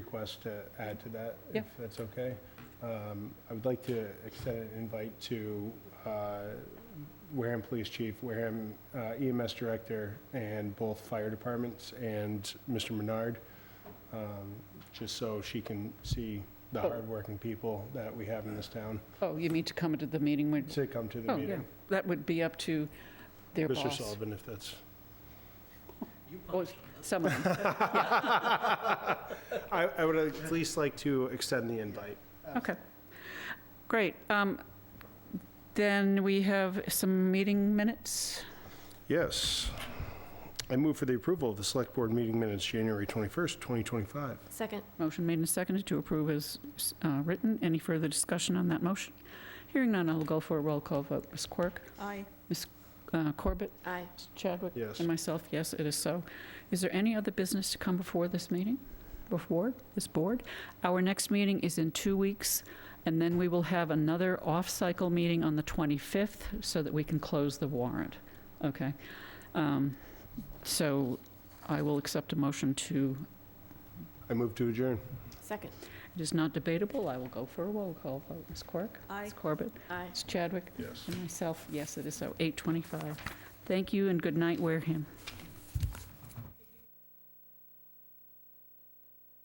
request to add to that, Yeah. if that's okay. Um, I would like to extend an invite to uh, Wareham Police Chief, Wareham uh, EMS Director, and both fire departments, and Mr. Menard, um, just so she can see the Oh. hardworking people that we have in this town Oh, you mean to come to the meeting when, to come to the oh, yeah, meeting. that would be up to their Mr. boss. Sullivan, if that's, Or someone. I I would at least like to extend the invite. Okay, great. Um, Then we have some meeting minutes. Yes. I move for the approval of the Select Board meeting minutes, January 21st, 2025. Second. Motion made and seconded to approve as uh, written. Any further discussion on that motion? Hearing none, I'll go for a roll call vote. Ms. Quirk? Aye. Uh, Corbett? Aye. Mr. Chadwick? Yes. And myself, yes, it is so. Is there any other business to come before this meeting? Before this board? Our next meeting is in two weeks, and then we will have another off-cycle meeting on the 25th so that we can close the warrant. Okay. Um, So I will accept a motion to, I move to adjourn. Second. it is not debatable, I will go for a roll call vote. Ms. Quirk? Aye. Ms. Corbett? Aye. Ms. Chadwick? Yes. And myself, yes, it is so. 8:25. Thank you and good night, Wareham.